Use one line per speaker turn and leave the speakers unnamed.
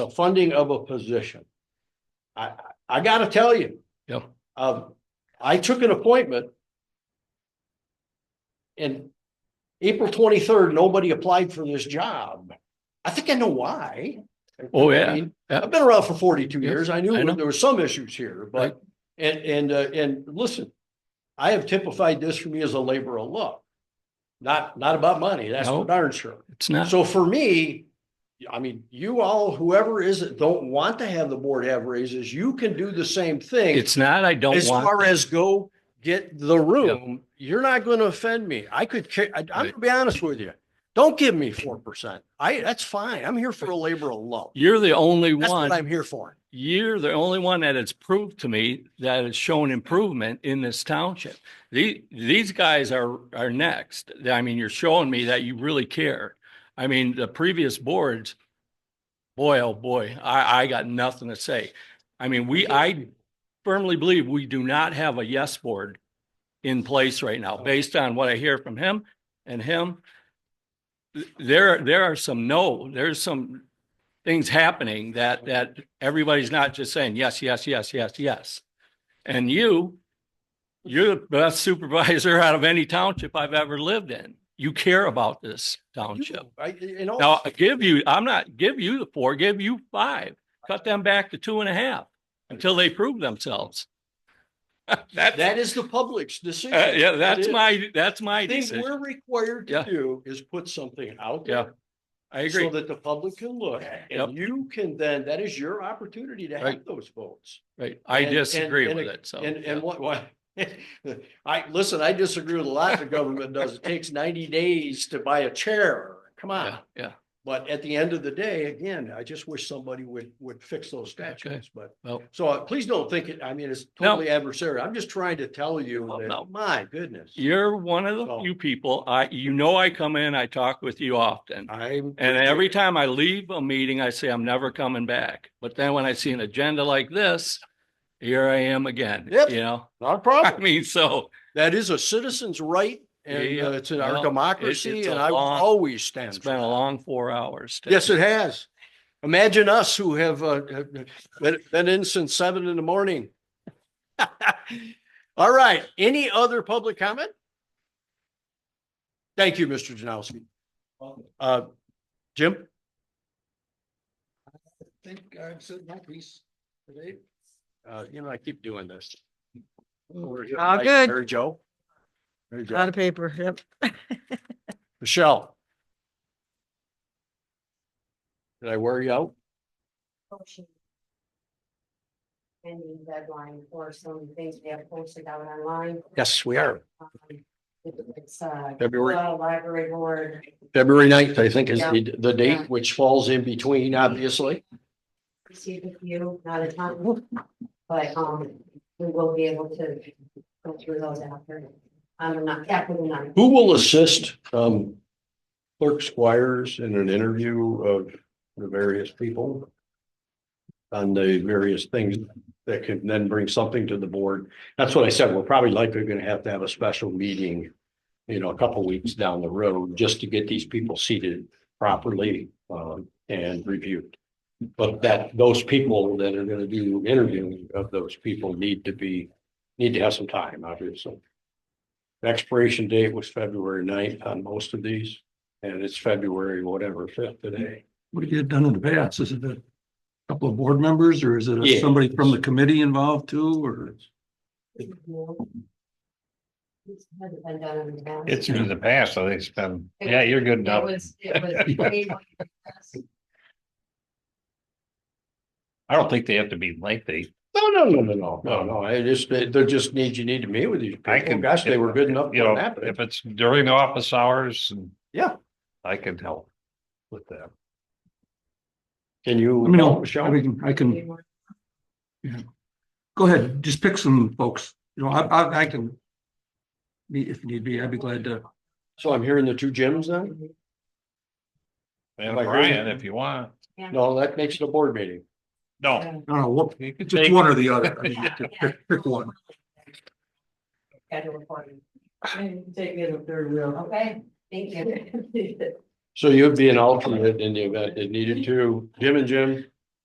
the funding of a position. I, I- I gotta tell you.
Yeah.
Um, I took an appointment. And April twenty-third, nobody applied for this job. I think I know why.
Oh,
I
yeah.
mean,
Yeah.
I've been around for forty-two
Yes,
years. I
I
knew
know.
there were some issues here,
Right.
but, and, and, uh, and listen. I have typified this for me as a labor of love. Not, not about money, that's
No.
for darn sure.
It's not,
So for me, I mean, you all, whoever is that don't want to have the board have raises, you can do the same thing.
it's not, I don't
As far
want,
as go get the room, you're not going to offend me. I could, ca- I- I'm going
Right.
to be honest with you. Don't give me four percent. I, that's fine. I'm here for a labor of love.
you're the only
That's what
one,
I'm here for.
you're the only one that has proved to me that has shown improvement in this township. The, these guys are, are next. I mean, you're showing me that you really care. I mean, the previous boards, boy, oh boy, I, I got nothing to say. I mean, we, I firmly believe we do not have a yes board in place right
Oh.
now, based on what I hear from him and him. There, there are some no, there's some things happening that, that everybody's not just saying yes, yes, yes, yes, yes. And you, you're the best supervisor out of any township I've ever lived in. You care about this township.
You- I- in all-
Now, I give you, I'm not, give you the four, give you five, cut them back to two and a half until they prove themselves. That, uh,
that is the public's decision.
yeah,
That
that's
is-
my, that's my
I think
decision.
we're required to
Yeah.
do is put something out
Yeah.
there.
I
So
agree.
that the public can look and you can then, that is your opportunity to have
Right.
those votes.
Right. I
and- and-
disagree
and
with
it-
it. So.
And,
yeah.
and what, why? I, listen, I disagree with a lot the government does. It takes ninety days to buy a chair. Come on.
Yeah, yeah.
But at the end of the day, again, I just wish somebody would, would fix those statutes, but.
Well-
So uh, please don't think it, I mean, it's
No.
totally adversarial. I'm just trying to tell you
Well,
that,
no.
my goodness.
You're one of the
So-
few people, I, you know, I come in, I talk with you often.
I'm.
And every time I leave a meeting, I say, I'm never coming back. But then when I see an agenda like this, here I am again,
Yep.
you know?
Not a
I
problem.
mean, so.
That is a citizen's right and
Yeah,
uh, it's in our
well,
democracy
it's a
and I will
long-
always stand.
It's
for
been a
that.
long four hours. today.
Yes, it has. Imagine us who have uh, uh, been, been in since seven in the morning. All right, any other public comment? Thank you, Mr. Janowski. Uh, Jim? I think I've said my piece today. Uh, you know, I keep doing this.
All good.
Mary Jo? Mary
A
Jo.
lot of paper, yep.
Michelle? Did I wear you out?
motion. Ending deadline for some of the things we have posted out online.
Yes, we are.
Um, It's uh.
February,
Well, library board,
February ninth, I think is
Yeah.
the, the
Yeah.
date, which falls in between, obviously.
received a few, not a ton, but um, we will be able to go through those after. I'm not, after the ninth.
Who will assist, um, clerk squires in an interview of the various people? On the various things that can then bring something to the board. That's what I said. We're probably likely gonna have to have a special meeting. You know, a couple weeks down the road, just to get these people seated properly, um, and reviewed. But that, those people that are gonna do interviewing of those people need to be, need to have some time, obviously. The Expiration date was February 9th on most of these, and it's February whatever fifth today.
we get done in the past, is it a couple of board members or is it
Yeah.
a- somebody from the committee involved too, or?
It's hasn't been done in the past.
It's in the past, I think it's been, yeah, you're
It
good enough.
was, it was. way more than us.
I don't think they have to be lengthy.
No, no, no, no, no, no, no. I just, they- they're just need, you need to meet with these
I
people. Oh,
can-
Gosh, they were good enough.
You
to
know,
happen.
if it's during the office hours and.
Yeah.
I can help with that.
Can you?
Let me know,
Michelle?
I can, I
Way
can,
more
go ahead, just pick some folks, you know, I, I, I can. Meet if need be, I'd be glad to,
So I'm hearing the two gyms then?
And
Like,
Brian, if you want,
No, that makes it a board meeting. Oh,
no.
I don't know, what,
you can
just
take-
one or the other, I mean, just
Yeah.
pick, pick one.
Schedule recording. Take me to third wheel. Okay, thank you.
So you'd be an alternate in the event it needed to. Jim and Jim,